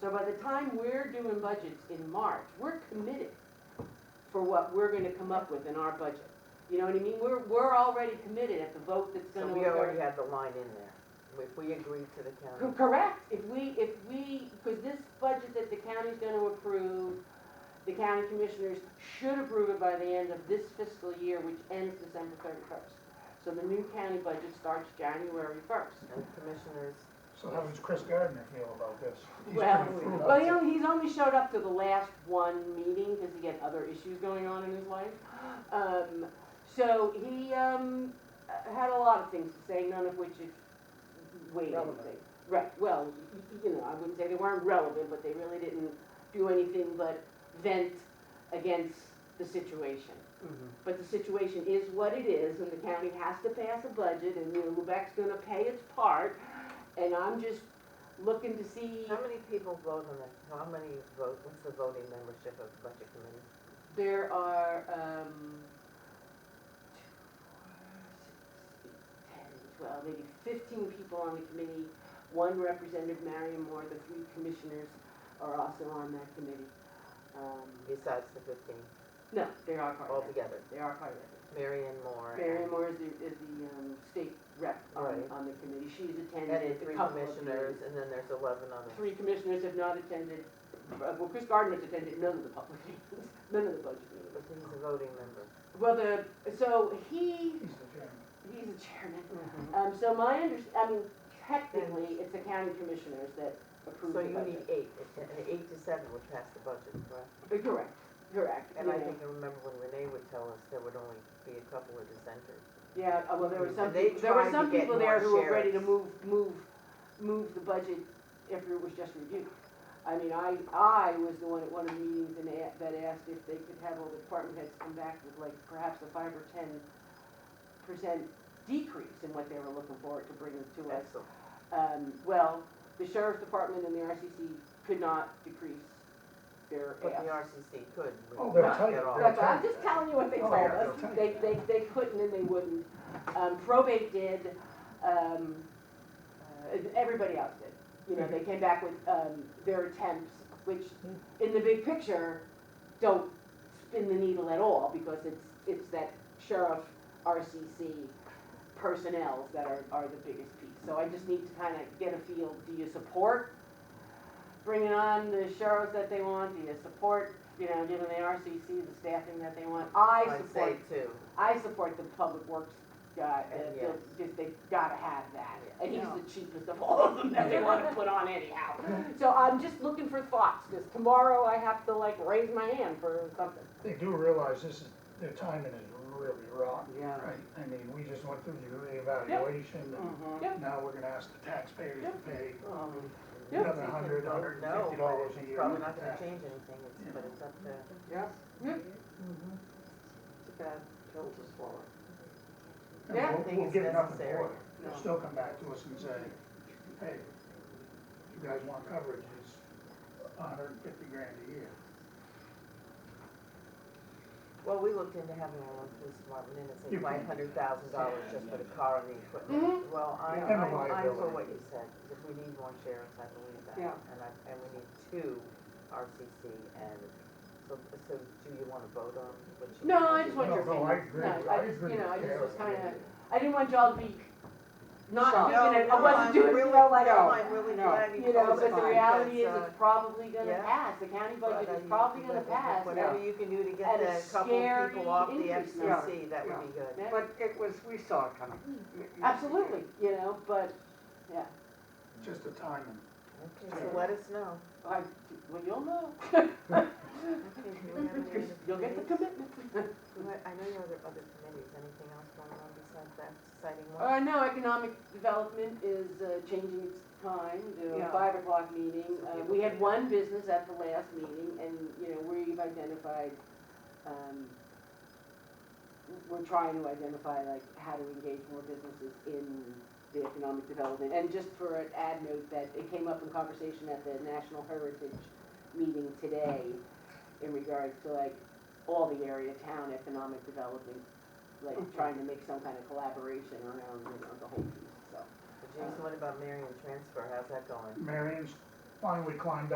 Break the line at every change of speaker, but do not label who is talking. So by the time we're doing budgets in March, we're committed for what we're gonna come up with in our budget. You know what I mean? We're, we're already committed at the vote that's
So
gonna
we already
occur.
had the line in there, if we agreed to the
Co-
county.
Correct, if we, if we, because this budget that the county's gonna approve, the county commissioners should approve it by the end of this fiscal year, which ends December thirty-first. So the new county budget starts January first.
And commissioners,
So how does Chris Gardner feel about this? He's
Well,
pretty frugal.
Well, you know, he's only showed up to the last one meeting because he had other issues going on in his life. Um, so he, um, uh, had a lot of things to say, none of which is weighty.
Relevant.
Right, well, y- y- you know, I wouldn't say they weren't relevant, but they really didn't do anything but vent against the situation. But the situation is what it is, and the county has to pass a budget, and, you know, Lubeck's gonna pay its part, and I'm just looking to see.
how many people vote on that, how many vote, what's the voting membership of the budget committee?
There are, um, two, four, six, eight, ten, twelve, maybe fifteen people on the committee. One representative, Marion Moore, the three commissioners are also on that committee. Um,
Besides the fifteen,
No, they are part of it.
altogether,
They are part of it.
Mary and Moore. and-
Marion Moore is the, is the, um, state rep on,
Right.
on the committee. She's
And
attended
then
a
three
couple of
commissioners,
meetings.
and then there's eleven others.
Three commissioners have not attended, uh, well, Chris Gardner's attended none of the public meetings, none of the budget meetings.
But he's a voting member.
Well, the, so he,
He's the chairman.
he's the chairman. Um, so my under, I mean, technically, it's the county commissioners that approve
So
the
you need
budget.
eight, and eight to seven would pass the budget, correct?
Uh, Correct, correct.
And I
you know.
think I remember when Renee would tell us there would only be a couple of dissenters.
Yeah, uh, well, there were some,
And they
people- there were
tried
some
to get
people there
more
who were ready to
sheriffs.
move, move, move the budget after it was just reviewed. I mean, I, I was the one at one of the meetings and a- that asked if they could have all the department heads come back with like perhaps a five or ten percent decrease in what they were looking for to bring it to us.
Excellent.
um, well, the sheriff's department and the RCC could not decrease their
But the
ask.
RCC could. but
Oh, they'll
not
tell you.
at all.
They'll
That's, I'm just telling you what they
Oh,
told
yeah,
us.
they'll tell
They,
you.
they, they couldn't and they wouldn't. Um, probate did, um, uh, everybody else did. You know, they came back with, um, their attempts, which in the big picture, don't spin the needle at all because it's, it's that sheriff, RCC personnel that are, are the biggest piece. So I just need to kind of get a feel, do you support bringing on the sheriffs that they want? Do you support, you know, giving the RCC the staffing that they want? I
I'd say
support,
two.
I support the public works guy, uh,
And
the-
yes.
just they gotta have that.
Yeah.
And he's the cheapest of all of them that they wanna put on anyhow. So I'm just looking for thoughts, because tomorrow I have to like raise my hand for something.
They do realize this is, their timing is really rotten.
Yeah.
Right, I mean, we just went through the reevaluation,
Yep.
Uh-huh.
Mm-hmm.
and now we're gonna ask the taxpayers
Yep.
to pay
Um, Yeah.
another hundred,
No,
hundred and fifty dollars a year.
Probably
for
not gonna
that.
change anything, Mm-hmm. it's, but it's up to.
Yeah. Yep.
Mm-hmm. It's a bad pill to swallow.
And
Yeah, I
we'll-
think
we'll
it's
get nothing
necessary.
for it. They'll still come back to us and say, hey, you guys want coverage, it's hundred and fifty grand a year.
Well, we looked into having our own police department, and it's
You-
like five hundred thousand dollars just for the car and the equipment. Well, I,
And
I, I
the
for
liability.
what you said, if we need more sheriffs, I believe that.
Yeah.
And I, and we need two RCC, and so, so do you wanna vote on what you?
No, I just want your
No, no,
opinion.
I agree,
No,
I
I just,
agree
you know, I
with
just was
Carol.
kinda, I didn't want y'all to be not
Shocked.
doing it,
No,
I
no,
wasn't
I'm
doing it, you
really-
know, like,
no,
oh,
I'm really
no.
glad you
You know,
told us
but the
mine,
reality is
because, uh,
it's probably gonna
yeah.
pass, the county budget
But,
is
uh,
probably
you-
gonna
you-
pass.
Whatever you can do to get
At a
a couple of
scary
people off the
increase.
FCC, that
Yeah.
would be good.
Yeah.
But it was, we saw it coming.
Absolutely, you know, but, yeah,
Just the timing.
Okay, so let us know.
I, well, you'll know,
Okay, do we have any other
you'll get the
committees?
commitment.
What- I know you have other committees, anything else going on besides that exciting one?
Uh, no, economic development is uh, changing its time, the
Yeah.
five o'clock meeting.
So
Uh,
people
We had
can-
one business at the last meeting and, you know, we've identified, um, we're trying to identify like how to engage more businesses in the economic development. And just for an ad note, that it came up in conversation at the National Heritage meeting today in regards to like all the area, town economic development, like
Mhm.
trying to make some kind of collaboration around, you know, the whole piece, so.
Jason, what about Marion transfer, how's that going?
Marion's finally climbed